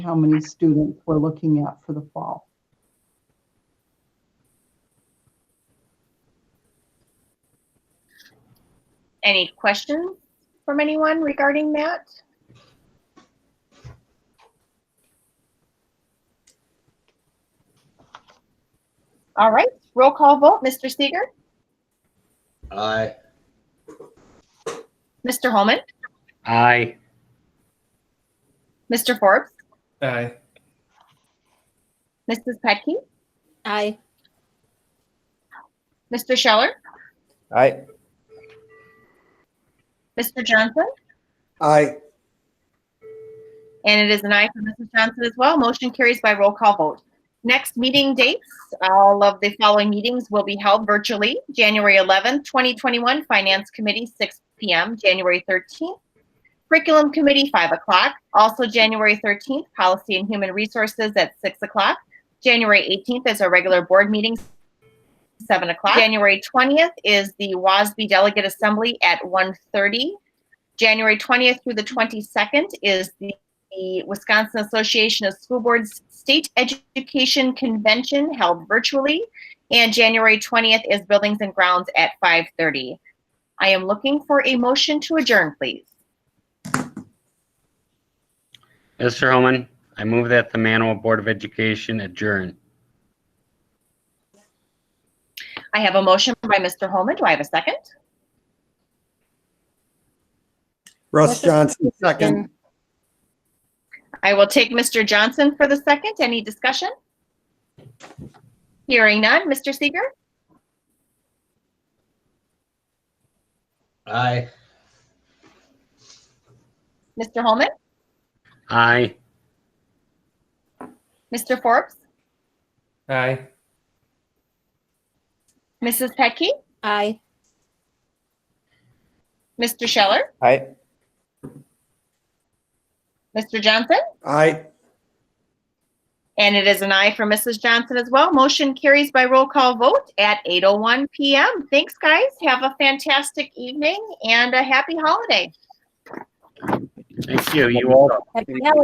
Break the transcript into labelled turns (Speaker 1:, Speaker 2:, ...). Speaker 1: how many students we're looking at for the fall.
Speaker 2: Any questions from anyone regarding that? All right, roll call vote, Mr. Seeger,
Speaker 3: Aye.
Speaker 2: Mr. Holman,
Speaker 4: Aye.
Speaker 2: Mr. Forbes,
Speaker 5: Aye.
Speaker 2: Mrs. Petke,
Speaker 6: Aye.
Speaker 2: Mr. Scheller,
Speaker 5: Aye.
Speaker 2: Mr. Johnson,
Speaker 5: Aye.
Speaker 2: and it is an aye for Mrs. Johnson as well. Motion carries by roll call vote. Next meeting dates, all of the following meetings will be held virtually. January 11th, 2021, Finance Committee, 6 p.m. January 13th, Curriculum Committee, 5 o'clock. Also, January 13th, Policy and Human Resources at 6 o'clock. January 18th is our regular board meeting, 7 o'clock. January 20th is the WASB Delegate Assembly at 1:30. January 20th through the 22nd is the the Wisconsin Association of School Boards State Education Convention held virtually. And January 20th is Buildings and Grounds at 5:30. I am looking for a motion to adjourn, please.
Speaker 4: Mr. Holman, I move that the Manawa Board of Education adjourn.
Speaker 2: I have a motion by Mr. Holman. Do I have a second?
Speaker 5: Russ Johnson, second.
Speaker 2: I will take Mr. Johnson for the second. Any discussion? Hearing none. Mr. Seeger?
Speaker 3: Aye.
Speaker 2: Mr. Holman?
Speaker 4: Aye.
Speaker 2: Mr. Forbes?
Speaker 5: Aye.
Speaker 2: Mrs. Petke?
Speaker 6: Aye.
Speaker 2: Mr. Scheller?
Speaker 5: Aye.
Speaker 2: Mr. Johnson?
Speaker 5: Aye.
Speaker 2: And it is an aye for Mrs. Johnson as well. Motion carries by roll call vote at 8:01 PM. Thanks, guys. Have a fantastic evening and a happy holiday.
Speaker 4: Thank you. You all.
Speaker 6: Happy holidays.